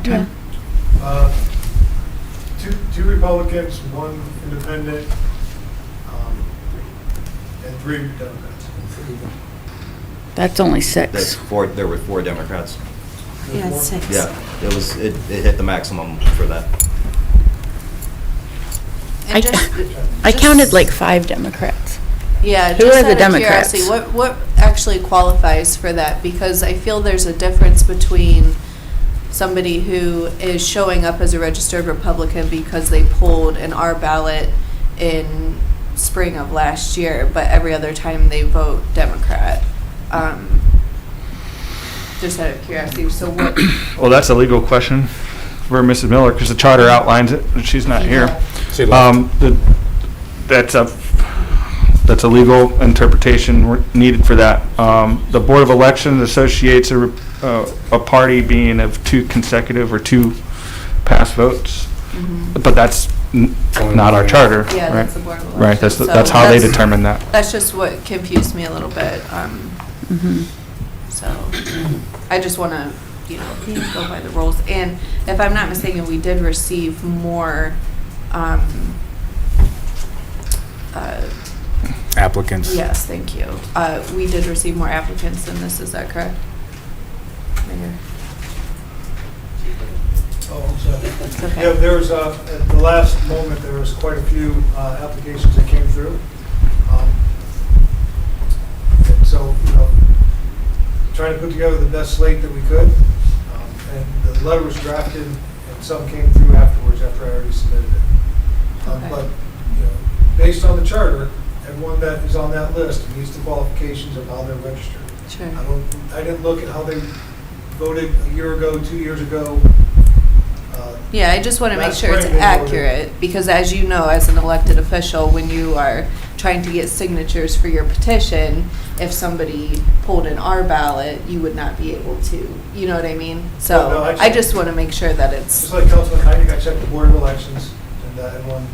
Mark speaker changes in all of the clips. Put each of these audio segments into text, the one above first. Speaker 1: time?
Speaker 2: Uh, Two two Republicans, one independent, um, and three Democrats.
Speaker 1: That's only
Speaker 3: That's
Speaker 1: six.
Speaker 3: four, there were four Democrats.
Speaker 4: Yeah, it's six.
Speaker 3: Yeah, it was, it, it hit the maximum for that.
Speaker 4: And
Speaker 1: I-
Speaker 4: just-
Speaker 2: Oh,
Speaker 1: I counted
Speaker 4: just-
Speaker 1: like five Democrats.
Speaker 4: Yeah.
Speaker 1: Who
Speaker 4: just
Speaker 1: are the
Speaker 4: out of curiosity,
Speaker 1: Democrats?
Speaker 4: What, what actually qualifies for that? Because I feel there's a difference between somebody who is showing up as a registered Republican because they pulled an R ballot in spring of last year, but every other time they vote Democrat. Um, Just out of curiosity, so what?
Speaker 5: Well, Oh, that's a legal question for Mrs. Miller, because the charter outlines it, and she's not here.
Speaker 6: She left.
Speaker 5: Um, the- That's a, that's a legal interpretation we're- needed for that. Um, The Board of Elections associates a, rep- uh, a party being of two consecutive or two past votes, but that's n- not our charter, right?
Speaker 4: Mm-hmm. Yeah, that's the Board of
Speaker 5: Right, that's,
Speaker 4: Elections,
Speaker 5: that's
Speaker 4: so
Speaker 5: how they
Speaker 4: that's-
Speaker 5: determine that.
Speaker 4: That's just what confused me a little bit, um, so, I just wanna, you know, go by the rules. And if I'm not mistaken, we did receive more, um, uh,
Speaker 6: Applicants.
Speaker 4: yes, thank you. Uh, we did receive more applicants than this, is that correct? Mayor?
Speaker 2: Oh, I'm sorry.
Speaker 4: It's okay.
Speaker 2: Yeah, there was, uh, at the last moment, there was quite a few uh, applications that came through. Um, And so, you know, trying to put together the best slate that we could. Um, And the letter was drafted, and some came through afterwards after I already submitted it. Um,
Speaker 4: Okay.
Speaker 2: But, you know, based on the charter, everyone that is on that list meets the qualifications of how they're registered.
Speaker 4: Sure.
Speaker 2: I don't, I didn't look at how they voted a year ago, two years ago. Uh,
Speaker 4: Yeah, I just want to make
Speaker 2: Last
Speaker 4: sure it's
Speaker 2: spring they voted.
Speaker 4: accurate, because as you know, as an elected official, when you are trying to get signatures for your petition, if somebody pulled an R ballot, you would not be able to, you know what I mean?
Speaker 2: Well,
Speaker 4: So
Speaker 2: no, I-
Speaker 4: I just want to make sure that
Speaker 2: Just
Speaker 4: it's,
Speaker 2: like Councilman Heineck, I checked the Board of Elections, and that everyone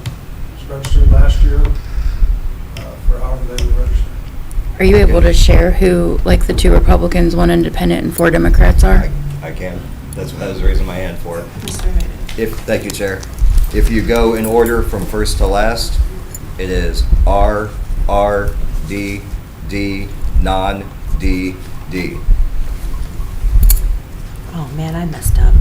Speaker 2: was registered last year uh, for however they were registered.
Speaker 1: Are you able to share who, like, the two Republicans, one independent, and four Democrats are?
Speaker 3: I I can, that's what I was raising my hand for.
Speaker 4: Mr. Hayden,
Speaker 3: If, thank you, Chair. If you go in order from first to last, it is R, R, D, D, non, D, D.
Speaker 7: Oh, man, I messed up.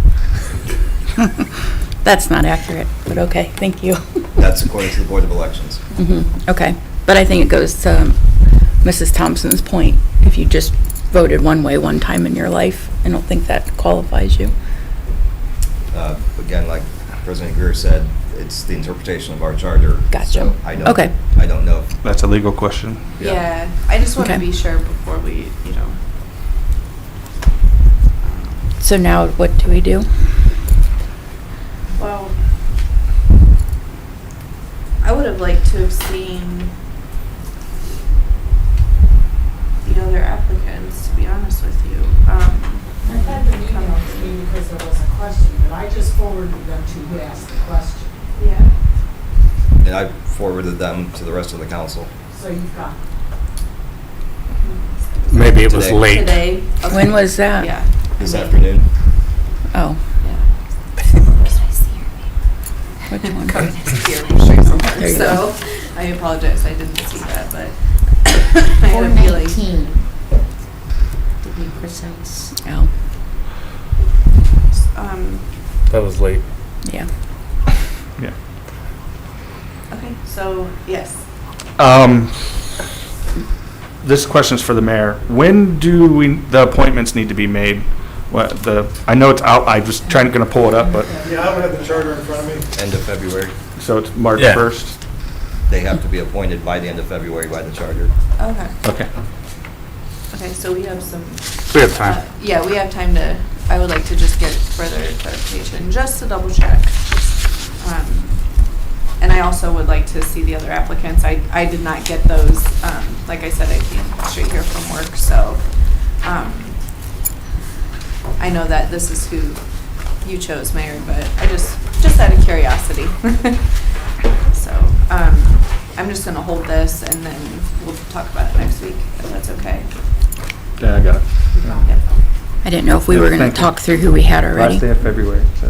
Speaker 1: That's not accurate, but okay, thank you.
Speaker 3: That's according to the Board of Elections.
Speaker 1: Mhm, Okay, but I think it goes to Mrs. Thompson's point. If you just voted one way one time in your life, I don't think that qualifies you.
Speaker 3: Uh, Again, like President Greer said, it's the interpretation of our charter.
Speaker 1: Gotcha.
Speaker 3: So I don't-
Speaker 1: Okay.
Speaker 3: I don't know. if-
Speaker 5: That's a legal question.
Speaker 3: Yeah.
Speaker 4: yeah, I just want to
Speaker 1: Okay.
Speaker 4: be sure before we, you know.
Speaker 1: So now what do we do?
Speaker 4: Well, I would have liked to have seen the other applicants, to be honest with you. Um,
Speaker 8: I had the meeting on the meeting because there was a question, but I just forwarded them to who asked the question.
Speaker 4: Yeah.
Speaker 3: And I forwarded them to the rest of the council.
Speaker 8: So you've got
Speaker 6: Maybe it was
Speaker 3: Today.
Speaker 6: late.
Speaker 4: Today. Okay.
Speaker 1: When was that?
Speaker 4: Yeah.
Speaker 3: This afternoon?
Speaker 1: Oh,
Speaker 4: yeah.
Speaker 1: which one?
Speaker 4: Covered his ear picture somewhere,
Speaker 1: There you
Speaker 4: So I apologize, I didn't see that, but I had a feeling.
Speaker 7: To be precise.
Speaker 1: Oh,
Speaker 4: Um,
Speaker 6: That was late.
Speaker 1: yeah.
Speaker 5: Yeah.
Speaker 4: okay, so yes.
Speaker 5: Um, This question's for the mayor. When do we, the appointments need to be made? What, the, I know it's out, I was trying, gonna pull it up, but,
Speaker 2: Yeah, I don't have the charter in front of me.
Speaker 3: End of February.
Speaker 5: so it's March
Speaker 6: Yeah.
Speaker 5: 1st?
Speaker 3: They have to be appointed by the end of February by the charter.
Speaker 4: Okay.
Speaker 5: Okay.
Speaker 4: Okay, so we have some.
Speaker 6: We have time.
Speaker 4: uh, Yeah, we have time to, I would like to just get further clarification, just to double check. Um, And I also would like to see the other applicants. I, I did not get those. Um, Like I said, I came straight here from work, so um, I know that this is who you chose, Mayor, but I just, just out of curiosity. So um, I'm just going to hold this and then we'll talk about it next week, if that's okay.
Speaker 5: Yeah, I got it.
Speaker 4: Yep.
Speaker 5: I didn't know if we were going to
Speaker 1: Thank you.
Speaker 5: talk through who we had already.
Speaker 1: Last day of February, so.